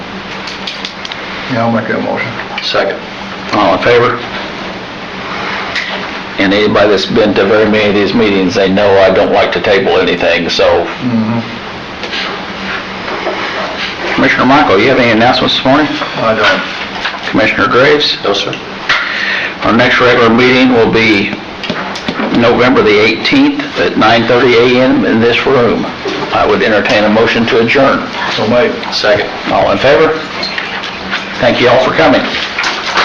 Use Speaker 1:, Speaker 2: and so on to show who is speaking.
Speaker 1: Yeah, I'll make that motion.
Speaker 2: Second. All in favor? And anybody that's been to very many of these meetings, they know I don't like to table anything, so.
Speaker 1: Mm-hmm.
Speaker 2: Commissioner Michael, you have any announcements this morning?
Speaker 1: I don't.
Speaker 2: Commissioner Graves? No, sir. Our next regular meeting will be November the 18th at 9:30 a.m. in this room. I would entertain a motion to adjourn.
Speaker 1: So, mate.
Speaker 2: Second. All in favor? Thank you all for coming.